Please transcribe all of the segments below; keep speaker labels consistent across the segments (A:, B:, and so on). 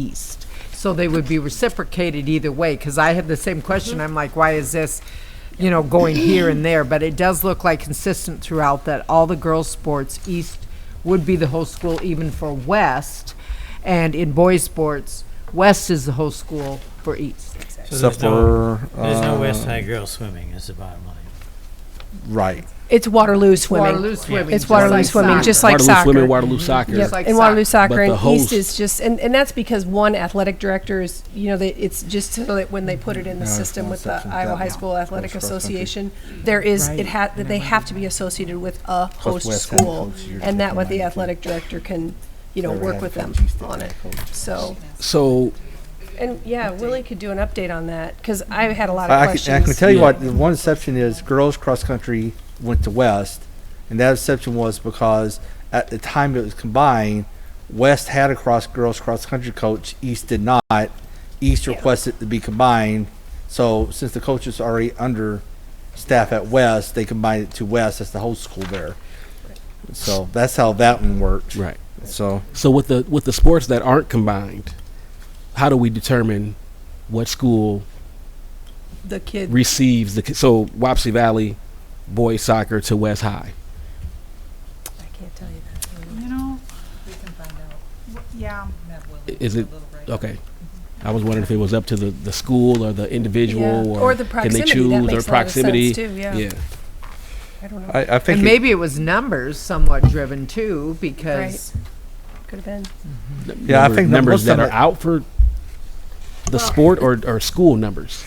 A: east. So they would be reciprocated either way, because I had the same question. I'm like, why is this, you know, going here and there? But it does look like consistent throughout that all the girls' sports, east would be the whole school, even for west. And in boys' sports, west is the whole school for east.
B: So
C: Except
B: there's no,
C: for,
B: there's no
C: uh,
B: West High girls swimming, is the bottom line.
C: right.
D: It's Waterloo swimming.
A: Waterloo swimming,
D: It's
A: just
D: Waterloo
A: like
D: swimming,
A: soccer.
D: just like
E: Waterloo
D: soccer. Mm-hmm.
E: swimming, Waterloo soccer.
D: Yep.
A: like
D: and Waterloo
A: soccer.
D: soccer,
E: But
D: and
E: the
D: East
E: host-
D: is just, and, and that's because one athletic director is, you know, they, it's just so that when they put it in the
C: Yeah, it's
D: system
C: one
D: with the
C: section,
D: Iowa
C: that
D: High
C: one.
D: School Athletic
C: That's cross country.
D: Association, there is
A: Right.
D: it ha- that they have to be associated with a host
C: West End
D: school,
C: coach, you're
D: and that
C: talking
D: what the
C: about.
D: athletic director can, you know,
C: Whoever
D: work
C: had
D: with
C: the
D: them
C: coach used to
D: on
C: have
D: it.
C: a coach.
D: So,
E: So
D: and yeah, Willie could do an update on that because I had a lot of
C: I, I,
D: questions.
C: can, I can tell you
B: Yeah.
C: what, the one exception is girls cross country went to West, and that exception was because at the time it was combined, West had a cross girls cross country coach, East did not. East requested to be combined, so since the coach is already under staff at West, they combined it to West as the whole school there. So that's how that one worked.
E: right.
C: So
E: So with the with the sports that aren't combined, how do we determine what school
D: the kid.
E: receives the ki- so Wapsie Valley boys soccer to West High?
D: I can't tell you that.
F: You know,
G: We can find out.
F: w- yeah,
G: Have Willie
E: I-
G: do
E: Is
G: a
E: it
G: little break.
E: okay? I was wondering if it was up to the, the school or the individual
D: Yeah.
E: or,
D: the
E: can they
D: proximity.
E: choose
D: that makes
E: or proximity?
D: A lot of sense too, yeah.
E: yeah.
D: I don't know.
C: I, I think
A: And
C: it-
A: maybe it was numbers somewhat driven too, because
D: Could have been.
C: Yeah, I think the most
E: numbers that
C: of
E: are
C: it-
E: out for the sport or, or school numbers.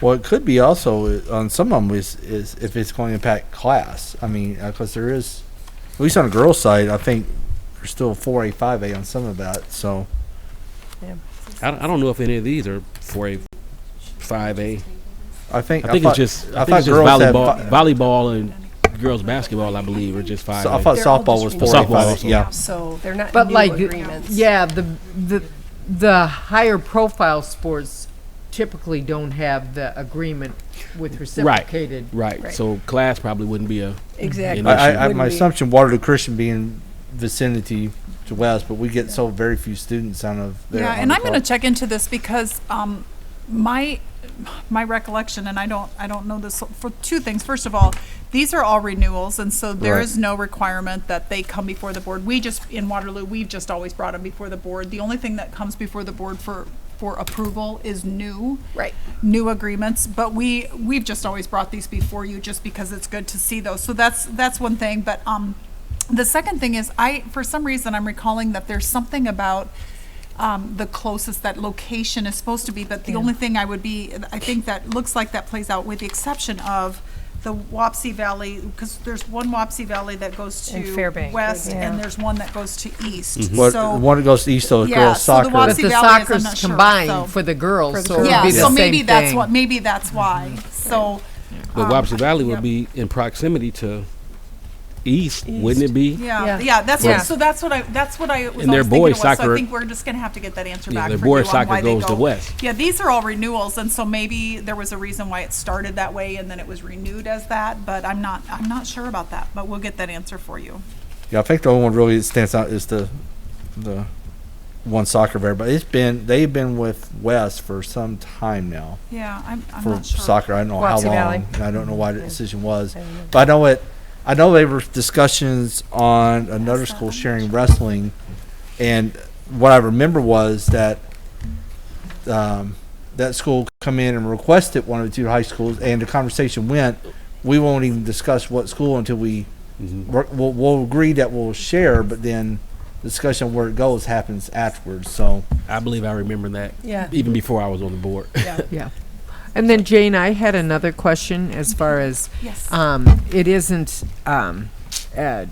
C: Well, it could be also uh, on some of them is, is if it's going to impact class. I mean, because there is, at least on the girls' side, I think there's still four A, five A on some of that. So
E: I, don't- I don't know if any of these are for a five A.
C: I think
E: I think
C: thought,
E: it's just I,
C: I
E: think
C: thought
E: it's just
C: girls had
E: volleyball,
C: fi-
E: volleyball and girls basketball. I believe are just five.
C: so I thought
D: They're all
C: softball was
D: just
C: four A,
E: renewed.
C: five
E: Softball
C: A. Yeah,
D: So they're not
A: but
D: new
A: like,
D: agreements.
A: yeah, the the the higher profile sports typically don't have the agreement with reciprocated.
E: right.
D: Right.
E: So class probably wouldn't be a
D: exactly.
E: And
C: I, I, I,
D: Wouldn't
C: my
D: be-
C: assumption Waterloo Christian being vicinity to West, but we get so very few students out of there.
F: yeah,
C: on
F: and
C: the
F: I'm going to
C: club.
F: check into this because um, my my recollection, and I don't I don't know this for two things. First of all, these are all renewals, and so there
C: Right.
F: is no requirement that they come before the board. We just in Waterloo, we've just always brought them before the board. The only thing that comes before the board for for approval is new
D: Right.
F: new agreements, but we, we've just always brought these before you just because it's good to see those. So that's, that's one thing, but, um, the second thing is I, for some reason, I'm recalling that there's something about, um, the closest that location is supposed to be, but the only thing I would be, I think that looks like that plays out with the exception of the Wapsie Valley, because there's one Wapsie Valley that goes
D: And
F: to
D: Fairbank,
F: west
D: yeah.
F: and there's one that goes to
A: Mm-hmm.
F: east.
C: But
F: So,
C: one that goes to East, so it's
F: Yeah,
C: girls
F: so the
C: soccer.
A: But
F: Wapsie-
A: the
F: Valley is, I'm not
A: soccer's
F: sure, so-
A: combined for the girls,
D: the
A: so it would
F: yeah,
A: be the
F: so maybe
A: same
F: that's what,
A: thing.
F: maybe that's why. So,
E: But
F: Um,
E: Wapsie Valley would
F: yep.
E: be in proximity to East, wouldn't it be?
F: Yeah,
D: Yeah.
F: yeah, that's
D: Yeah.
F: what. So that's what I. That's what I was
E: And their
F: always thinking
E: boys
F: it was. so
E: soccer-
F: I think we're just gonna have to get that answer
E: Yeah,
F: back.
E: their
F: for
E: boys
F: you on
E: soccer
F: why they
E: goes to
F: go.
E: West.
F: Yeah, these are all renewals, and so maybe there was a reason why it started that way, and then it was renewed as that. But I'm not. I'm not sure about that. But we'll get that answer for you.
C: Yeah, I think the only one really that stands out is the the one soccer there, but it's been they've been with West for some time now
F: Yeah, I'm. I'm
C: for
F: not sure.
C: soccer. I don't know how
D: Wapsie
C: long,
D: Valley.
C: and I don't know why the
D: Yeah.
C: decision was,
D: I don't know.
C: but I know it. I know there were discussions on another
F: That's not-
C: school
F: I'm not
C: sharing wrestling, and what I remember was that um, that school come in and requested one of the two high schools, and the conversation went, we won't even discuss what school until we we're- we'll, we'll agree that we'll share, but then discussion where it goes happens afterwards. So
E: I believe I remember that
D: Yeah.
E: even before I was on the board.
A: Yeah. And then Jane, I had another question as far as
F: Yes.
A: um, it isn't um, uh,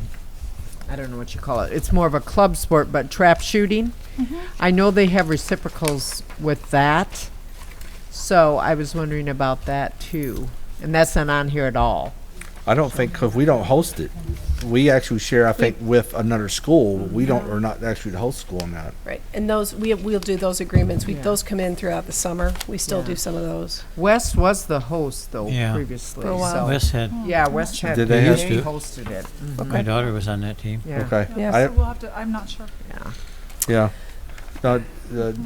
A: I don't know what you call it. It's more of a club sport, but trap shooting. I know they have reciprocals with that, so I was wondering about that too. And that's not on here at all.
C: I don't think because we don't host it, we actually share. I think with another school, we don't. We're not actually the host school on that.
D: Right. And those we we'll do those agreements. We
A: Yeah.
D: those come in throughout the summer. We still
A: Yeah.
D: do some of those.
A: West was the host though
B: Yeah.
A: previously.
D: For a while.
A: so-
B: West had.
F: Oh,
A: yeah, West had
C: Did they
B: have to?
A: hosted it. Mhm.
B: My daughter was on that team.
A: Yeah.
C: Okay.
D: Yeah.
C: I,
F: so we'll have to. I'm not sure.
C: yeah. Uh, the-